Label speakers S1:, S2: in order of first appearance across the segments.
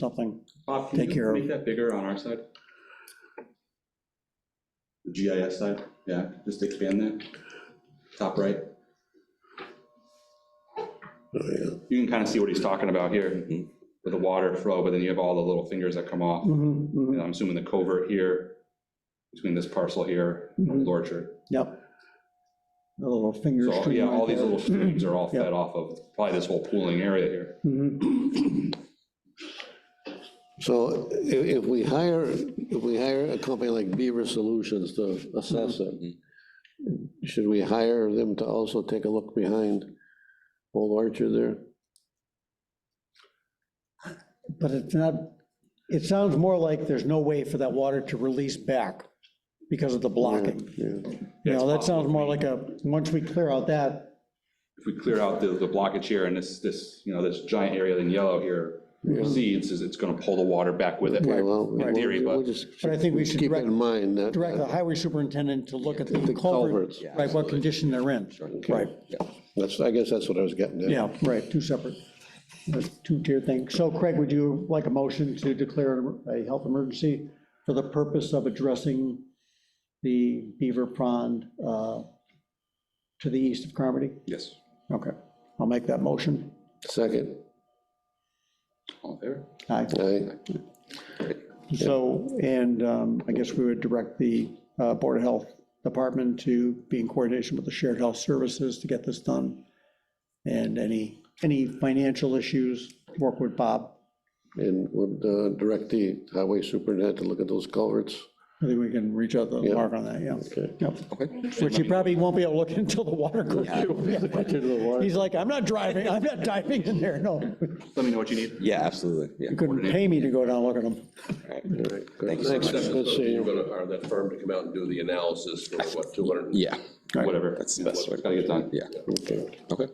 S1: something.
S2: Bob,
S1: Take
S2: can
S1: care
S2: you
S1: of-
S2: make that bigger on our side? The GIS side, yeah, just expand that, top right. Oh, You can kind of see what he's talking about here, with the water flow, but then you have all the little fingers that come off.
S1: Mhm, mhm.
S2: And I'm assuming the covert here, between this parcel here,
S1: Mhm.
S2: and Lorchard.
S1: Yep. The little fingers.
S2: So, yeah, all these little streams are
S1: Mm-hmm.
S2: all fed off of probably this whole pooling area here.
S1: Mhm.
S3: So if, if we hire, if we hire a company like Beaver Solutions to assess it, should we hire them to also take a look behind Old Orchard there?
S1: But it's not, it sounds more like there's no way for that water to release back because of the blocking.
S3: Yeah,
S1: You know, that
S2: That's
S1: sounds more like a, once we clear out that,
S2: if we clear out the, the blockage here and this, this, you know, this giant area in yellow here recedes, is it's gonna pull the water back with it.
S3: Yeah, well,
S2: In
S3: we'll-
S2: theory,
S3: we'll
S2: but
S3: just
S1: but I think we should
S3: Keep it
S1: direct,
S3: in mind that. uh,
S1: direct the highway superintendent to look at the
S3: The
S1: culvert.
S3: culverts. Yeah,
S1: Right, what condition they're in. Right,
S3: That's, I guess that's what I was getting at.
S1: yeah, right, two separate, two-tier thing. So Craig, would you like a motion to declare a health emergency for the purpose of addressing the Beaver Pond uh, to the east of Carmody?
S2: Yes,
S1: Okay, I'll make that motion.
S3: Second,
S2: all in favor?
S1: Aye.
S3: I,
S1: So, and um, I guess we would direct the uh, Board of Health Department to be in coordination with the Shared Health Services to get this done. And any, any financial issues, work with Bob.
S3: and would uh, direct the highway superintendent to look at those culverts.
S1: I think we can reach out to
S3: Yeah.
S1: Mark on that, yeah.
S3: Okay.
S1: Yep. Which he probably won't be able to look until the water goes through.
S3: Into the water.
S1: He's like, I'm not driving, I'm not diving in there, no.
S2: Let me know what you need.
S4: Yeah, absolutely, yeah.
S1: You couldn't pay me to go down and look at them.
S4: Thank you so
S3: Thanks,
S4: much.
S3: good seeing
S5: You're
S3: you.
S5: gonna, hire that firm to come out and do the analysis for what, 200?
S4: Yeah,
S2: Whatever.
S4: that's the best way.
S2: It's Gotta get done.
S4: Yeah,
S3: Okay.
S4: okay,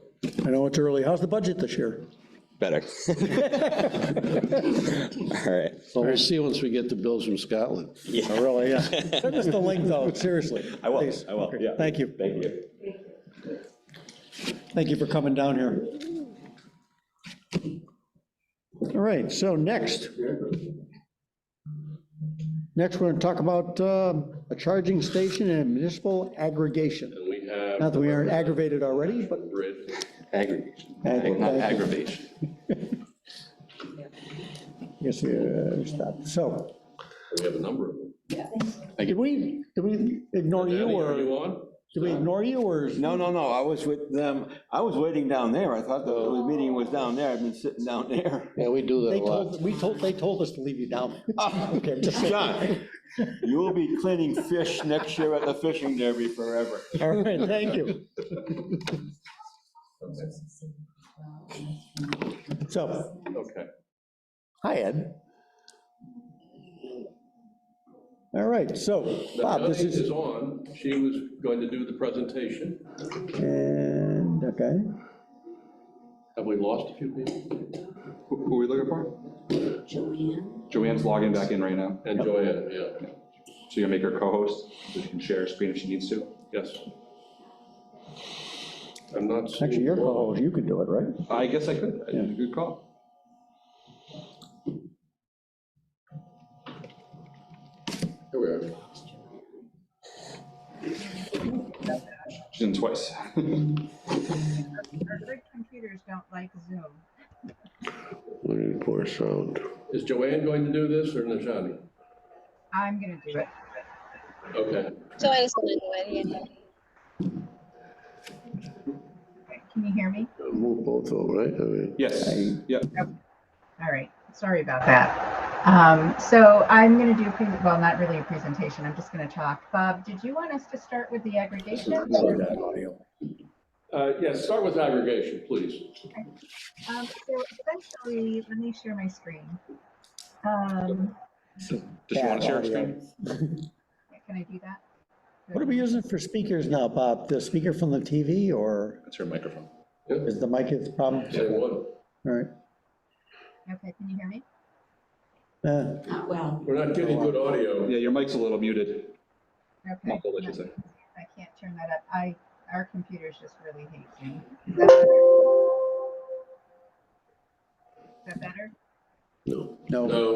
S1: I know it's early, how's the budget this year?
S4: better. All right,
S3: Well, we'll see once we get the bills from Scotland.
S1: Oh, Really, yeah. Send us the link, though, seriously. I will, I will, yeah. Thank you. Thank you. Thank you for coming down here. All right, so next. Next, we're going to talk about um, a charging station and municipal aggregation.
S5: And we have.
S1: Not that we aren't aggravated already, but.
S5: Bridge.
S4: aggregation,
S1: Ag-
S4: not
S1: ag-
S4: aggravation.
S1: Yes, uh, stop. So,
S5: We have a number of them.
S1: did we, did we ignore you
S5: Danny, are you
S1: or,
S5: on?
S1: did we ignore you or?
S6: No, no, no, I was with them, I was waiting down there, I thought the the meeting was down there, I've been sitting down there.
S3: Yeah, we do that
S1: They
S3: a lot.
S1: told, we told, they told us to leave you down. Okay, I'm just saying.
S6: John, you will be cleaning fish next year at the fishing derby forever.
S1: All right, thank you. So,
S5: Okay.
S1: hi, Ed. All right, so,
S5: Now,
S1: Bob, this
S5: Johnny
S1: is,
S5: is on. She was going to do the presentation.
S1: and, okay,
S5: Have we lost a few people?
S2: Who who are we looking for? Joanne. Joanne's logging back in right now.
S5: And Joanne, yeah,
S2: So you're gonna make her co-host, so she can share her screen if she needs to.
S5: yes. I'm not seeing.
S1: actually, your
S5: Laura.
S1: call, you can do it, right?
S2: I guess I could. I did a Good call.
S5: Here we are.
S2: She's in twice.
S7: Our good computers don't like Zoom.
S3: We need poor sound.
S5: Is Joanne going to do this or Najani?
S7: I'm gonna do it.
S5: Okay.
S8: Joanne's going to do it, yeah.
S7: Can you hear me?
S3: Move both of them, right? I mean,
S2: Yes, yeah.
S7: All right, sorry about that. Um, so I'm gonna do, a pre- well, not really a presentation, I'm just gonna talk. Bob, did you want us to start with the aggregation? Um,
S5: Uh, Yes, start with aggregation, please.
S7: Um, so essentially, let me share my screen. Um,
S2: Does she want to share her screen?
S7: can I do that?
S1: What are we using for speakers now, Bob? The speaker from the TV or
S2: That's her microphone.
S1: is the mic the problem?
S5: Say one.
S1: All right.
S7: Okay, can you hear me?
S1: Uh,
S5: We're not getting good audio.
S2: Yeah, your mic's a little muted.
S7: Okay.
S2: Muffled, I
S7: yeah,
S2: should say.
S7: I can't turn that up. I, our computers just really hate Zoom. Is that better?
S9: No.
S5: No.